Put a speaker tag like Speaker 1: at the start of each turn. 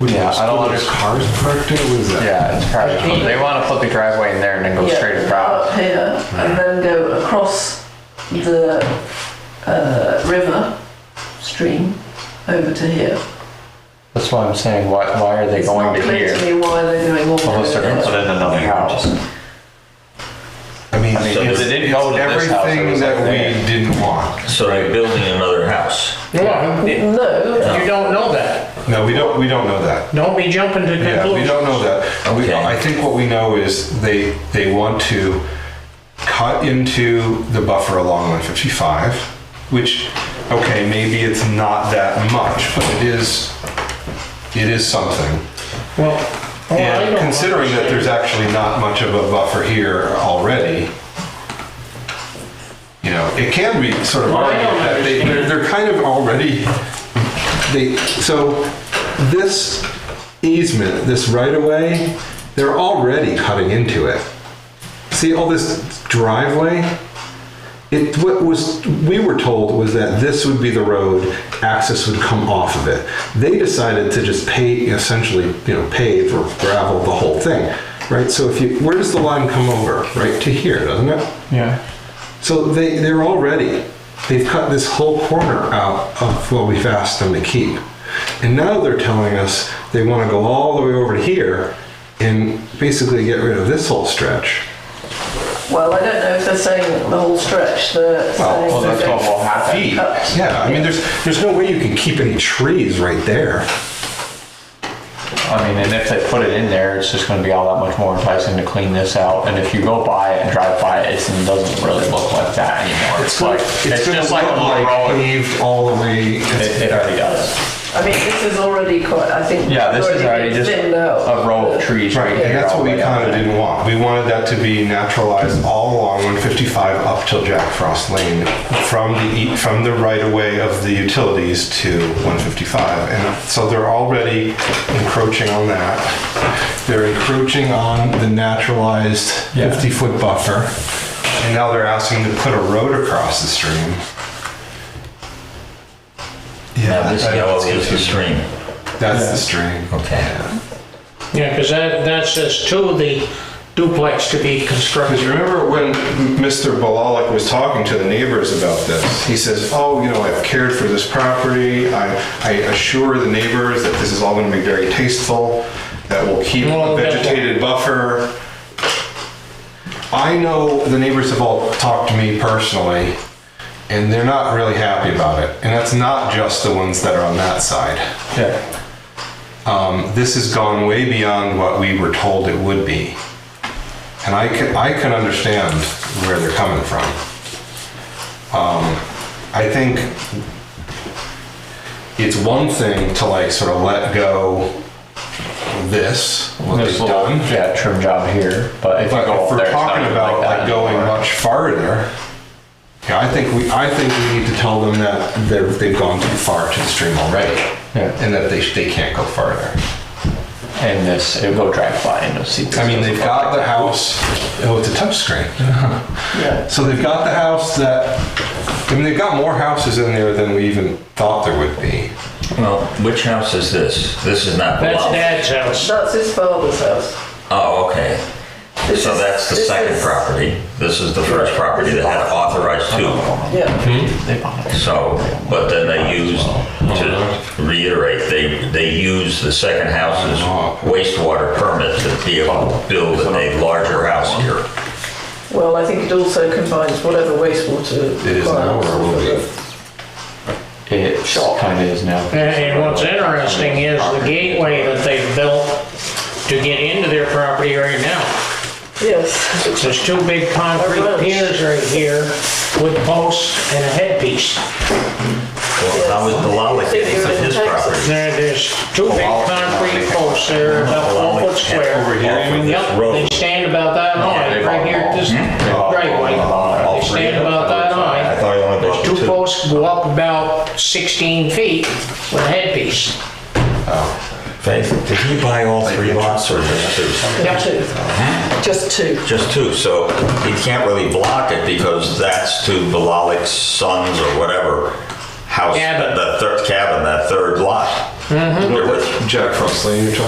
Speaker 1: Yeah, I don't
Speaker 2: There's
Speaker 1: understand.
Speaker 2: cars parked there, what is that?
Speaker 1: Yeah, it's probably, they want to put the driveway in there and then go
Speaker 3: Yeah,
Speaker 1: straight
Speaker 3: Up
Speaker 1: across.
Speaker 3: here, and then go across the uh, river stream over to here.
Speaker 1: That's what I'm saying, why, why are they
Speaker 3: It's
Speaker 1: going
Speaker 3: not
Speaker 1: to
Speaker 3: clear
Speaker 1: here?
Speaker 3: to me why they're doing all
Speaker 1: Unless they're gonna
Speaker 3: that.
Speaker 1: put in another house.
Speaker 2: I mean,
Speaker 1: I mean, if
Speaker 2: it's
Speaker 1: they didn't go to this house, it
Speaker 2: everything
Speaker 1: was
Speaker 2: that
Speaker 1: like
Speaker 2: we
Speaker 1: that.
Speaker 2: didn't want.
Speaker 4: So they're building another house.
Speaker 5: Yeah, you
Speaker 3: No,
Speaker 5: don't know that.
Speaker 2: No, we don't, we don't know that.
Speaker 5: Don't be jumping to conclusions.
Speaker 2: Yeah, we don't know that. We,
Speaker 4: Okay.
Speaker 2: I think what we know is they, they want to cut into the buffer along 155, which, okay, maybe it's not that much, but it is, it is something.
Speaker 5: Well, well, I
Speaker 2: And
Speaker 5: don't
Speaker 2: considering that there's
Speaker 5: understand.
Speaker 2: actually not much of a buffer here already, you know, it can be sort of
Speaker 5: Well, I
Speaker 2: argued
Speaker 5: don't
Speaker 2: that they, they're, they're kind of already, they, so this easement, this right of way, they're already cutting into it. See all this driveway? It, what was, we were told was that this would be the road, access would come off of it. They decided to just pave, essentially, you know, pave or gravel the whole thing, right? So if you, where does the line come over? Right to here, doesn't it?
Speaker 1: Yeah.
Speaker 2: So they, they're already, they've cut this whole corner out of what we've asked them to keep. And now they're telling us they want to go all the way over to here and basically get rid of this whole stretch.
Speaker 3: well, I don't know if they're saying the whole stretch, they're saying.
Speaker 1: well, that's
Speaker 3: they're
Speaker 1: what will happen.
Speaker 3: gonna cut.
Speaker 2: Yeah, I mean, there's, there's no way you can keep any trees right there.
Speaker 1: I mean, and if they put it in there, it's just gonna be all that much more enticing to clean this out. And if you go by it and drive by it, it's- it doesn't really look like that anymore. It's like, it's
Speaker 2: gonna
Speaker 1: just like a
Speaker 2: look
Speaker 1: little road.
Speaker 2: paved all the way.
Speaker 1: It, it already does.
Speaker 3: I mean, this is already quite, I think.
Speaker 1: Yeah, this is
Speaker 3: it's
Speaker 1: already just
Speaker 3: thinned out.
Speaker 1: a row of trees right
Speaker 2: Right,
Speaker 1: here.
Speaker 2: and that's what we kind of didn't want. We wanted that to be naturalized all along 155 up till Jack Frost Lane, from the, e- from the right of way of the utilities to 155. And so they're already encroaching on that. They're encroaching on the naturalized
Speaker 1: Yeah.
Speaker 2: 50-foot buffer. And now they're asking to put a road across the stream.
Speaker 4: Now this
Speaker 2: I know
Speaker 4: yellow
Speaker 2: it's
Speaker 4: is the
Speaker 2: confusing.
Speaker 4: stream.
Speaker 2: That's the stream.
Speaker 4: Okay.
Speaker 5: Yeah, because that, that says to the duplex to be
Speaker 2: Because
Speaker 5: constructed.
Speaker 2: remember when Mr. Balalik was talking to the neighbors about this, he says, oh, you know, I've cared for this property. I, I assure the neighbors that this is all gonna be very tasteful, that we'll keep a
Speaker 5: Well, that's-
Speaker 2: vegetated buffer. I know the neighbors have all talked to me personally, and they're not really happy about it. And that's not just the ones that are on that side. Um,
Speaker 1: Yeah.
Speaker 2: This has gone way beyond what we were told it would be. And I can, I can understand where they're coming from. Um, I think it's one thing to like sort of let go this, what
Speaker 1: This
Speaker 2: they've
Speaker 1: little,
Speaker 2: done.
Speaker 1: yeah, trim job here, but if you
Speaker 2: But
Speaker 1: go
Speaker 2: if
Speaker 1: up there,
Speaker 2: we're
Speaker 1: it's not
Speaker 2: talking
Speaker 1: gonna
Speaker 2: about
Speaker 1: that
Speaker 2: like going
Speaker 1: anymore.
Speaker 2: much farther, yeah, I think we, I think we need to tell them that they're, they've gone too far to the stream already.
Speaker 1: Yeah.
Speaker 2: And that they, sh- they can't go farther.
Speaker 1: And this, it'll go drive by and you'll see. this
Speaker 2: I mean,
Speaker 1: doesn't
Speaker 2: they've
Speaker 1: look
Speaker 2: got
Speaker 1: like
Speaker 2: the
Speaker 1: that.
Speaker 2: house, oh, it's a touchscreen. Uh-huh.
Speaker 3: Yeah.
Speaker 2: So they've got the house that, I mean, they've got more houses in there than we even thought there would be.
Speaker 4: Well, which house is this? This is not the
Speaker 5: That's
Speaker 4: lot.
Speaker 5: Dad's house.
Speaker 3: That's his father's house.
Speaker 4: Oh, okay.
Speaker 3: This
Speaker 4: So
Speaker 3: is-
Speaker 4: that's the
Speaker 3: this
Speaker 4: second
Speaker 3: is-
Speaker 4: property. This is the first property that had authorized two.
Speaker 3: Yeah,
Speaker 4: So, but then they used, to reiterate, they, they used the second house's wastewater permit to be able to build a larger house here.
Speaker 3: well, I think it also combines whatever wastewater.
Speaker 2: It is now or will be.
Speaker 1: It kind of is now.
Speaker 5: And- And what's interesting is the gateway that they've built to get into their property right now.
Speaker 3: Yes.
Speaker 5: There's two big concrete piers right here with posts and a headpiece.
Speaker 4: Well, how is the Lala getting to his property?
Speaker 5: There, there's two big concrete posts there, about four foot square.
Speaker 4: Over here, you mean?
Speaker 5: Yep, they stand about that high, right here at this
Speaker 2: Hmm?
Speaker 5: driveway.
Speaker 4: Uh,
Speaker 5: They stand about that
Speaker 4: I
Speaker 5: high.
Speaker 4: thought you only built
Speaker 5: Two
Speaker 4: two.
Speaker 5: posts go up about 16 feet with a headpiece.
Speaker 4: Faith, did he buy all three lots or just two?
Speaker 3: Two. Just two.
Speaker 4: Just two, so he can't really block it because that's to Valalik's sons or whatever house,
Speaker 5: Cabin. Mm-hmm.
Speaker 4: the third cabin, that third lot.
Speaker 2: You know that Jack Frost Lane you're talking